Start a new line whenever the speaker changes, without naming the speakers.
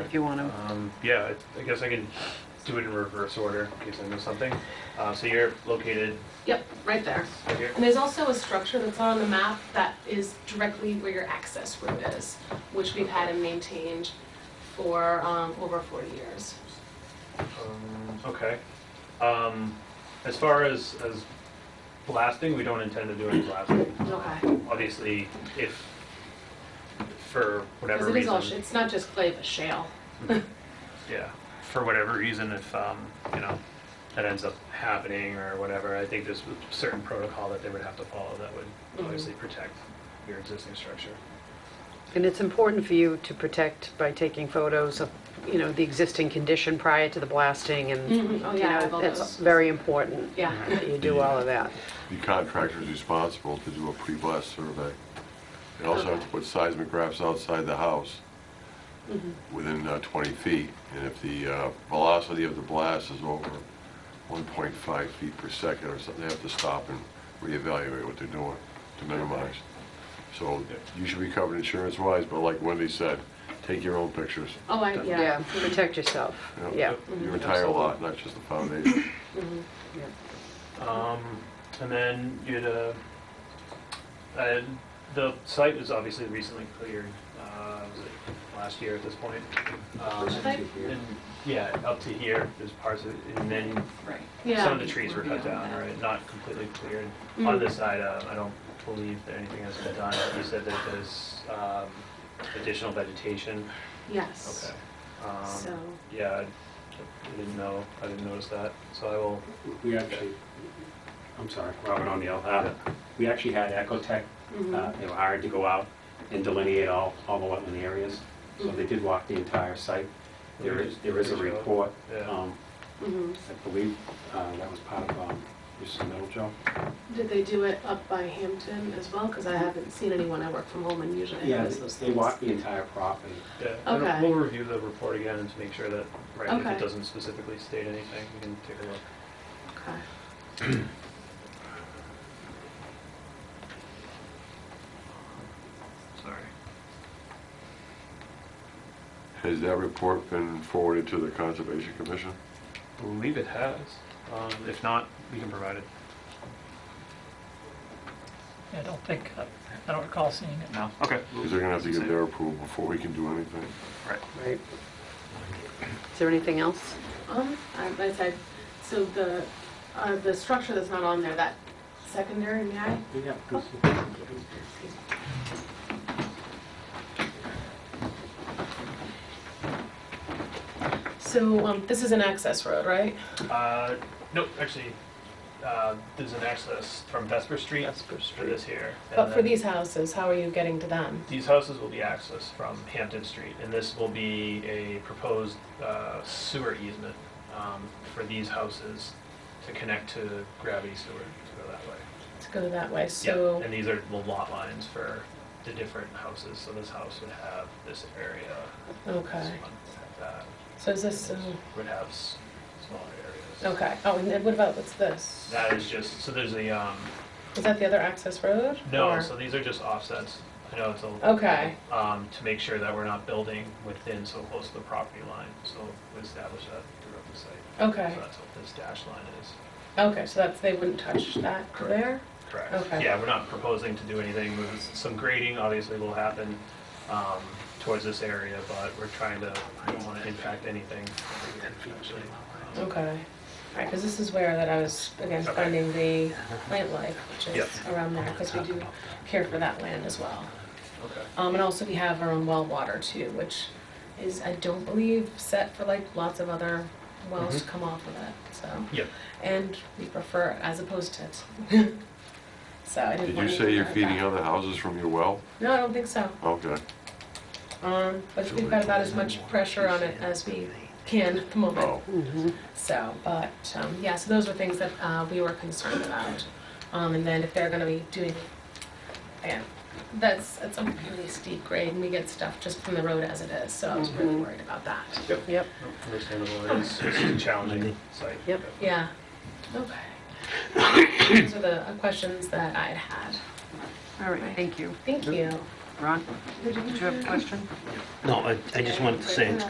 if you want to.
Um, yeah, I I guess I can do it in reverse order in case I miss something. Uh, so you're located
Yep, right there.
right here.
And there's also a structure that's not on the map that is directly where your access road is, which we've had and maintained for um, over 40 years.
Um, okay. Um, as far as, as blasting, we don't intend to do any blasting.
Okay.
Obviously, if for whatever
Because
reason.
it is all, sh- it's not just clay, but shale.
yeah, for whatever reason, if, um, you know, that ends up happening or whatever, I think there's a certain protocol that they would have to follow that would
Mm-hmm.
obviously protect your existing structure.
And it's important for you to protect by taking photos of, you know, the existing condition prior to the blasting and, you
Mhm. Oh, yeah, I have
know,
all
that's
those.
very important.
Yeah.
That you do all of that.
The contractor's responsible to do a pre-blast survey. They also have to put seismographs outside the house within uh, 20 feet. And if the uh, velocity of the blast is over 1.5 feet per second or something, they have to stop and reevaluate what they're doing to minimize. So you should be covered insurance-wise, but like Wendy said, take your own pictures.
Oh, I,
Yeah,
yeah.
protect yourself.
you know,
Yeah.
Your entire lot, not just the foundation.
yeah.
Um, and then you had a, uh, the site was obviously recently cleared, uh, was it last year at this point? Um,
Should I-
and, yeah, up to here, there's parts of, and then
Right.
Yeah.
some of the trees were
We're
cut
beyond
down,
that.
right? Not completely cleared.
Mm.
On this side, uh, I don't believe that anything has been done. You said that there's, um, additional vegetation.
Yes.
Okay. Um,
So,
yeah, I I didn't know, I didn't notice that, so I will,
We actually, I'm sorry, Robert O'Neill. uh, We actually had Ecotech,
Mm-hmm.
uh, they were hired to go out and delineate all, all the wetland areas. So they did walk the entire site. There is, there is a report.
Yeah.
um,
mhm.
I believe uh, that was part of um, Mrs. Middlejoe.
did they do it up by Hampton as well? Because I haven't seen anyone, I work from home and usually I
Yeah,
notice those
they
things.
walked the entire property.
Yeah, and
Okay.
we'll review the report again and to make sure that, right, if
Okay.
it doesn't specifically state anything, we can take a look.
Okay.
Sorry.
Has that report been forwarded to the Conservation Commission?
Believe it has. Um, if not, we can provide it.
I don't think, I don't recall seeing it.
No, okay.
Because they're gonna have to get their approval before we can do anything.
Right.
Right. Is there anything else?
Um, I- I said, so the, uh, the structure that's not on there, that secondary, may I?
Yeah.
So, um, this is an access road, right?
Uh, nope, actually, uh, there's an access from Vesper Street for this here. and
But for
then
these houses, how are you getting to them?
These houses will be accessed from Hampton Street, and this will be a proposed uh, sewer easement um, for these houses to connect to gravity sewer to go that way.
To go that way,
Yeah,
so,
and these are the lot lines for the different houses, so this house would have this area, this
okay.
one would have that,
So is this, um,
would have s- smaller areas.
okay, oh, and then what about, what's this?
That is just, so there's a, um,
Is that the other access road?
no,
Or- Oh.
so these are just offsets, I know it's a,
Okay,
um, to make sure that we're not building within so close to the property line, so we establish that throughout the site.
okay,
So that's what this dash line is.
okay, so that's, they wouldn't touch that there?
Correct.
Okay.
Yeah, we're not proposing to do anything. There's Some grading obviously will happen um, towards this area, but we're trying to, we don't want to impact anything. actually. Um,
Okay, all right, because this is where that I was, again,
Okay.
finding the plant life, which is
Yep.
around there, because we do care for that land as well.
Okay.
Um, and also we have our own well water too, which is, I don't believe, set for like lots of other wells to
Mm-hmm.
come off of it, so.
Yep.
And we prefer as opposed to it. So I didn't
Did you
want
say
to
you're
hurt
feeding
that.
other houses from your well?
No, I don't think so.
Okay.
Um, but we've got about as much pressure on it as we can at the moment.
Oh,
So, but, um, yeah, so those were things that, uh, we were concerned about. Um, and then if they're gonna be doing, again, that's, it's a really steep grade and we get stuff just from the road as it is, so I was really worried about that.
Yep.
Understandable, it's it's a challenging site.
Yep.
Yeah, okay. Those are the uh, questions that I had had.
All right, thank you.
Thank you.
Ron, did you have a question?
No, I, I just wanted to say, it's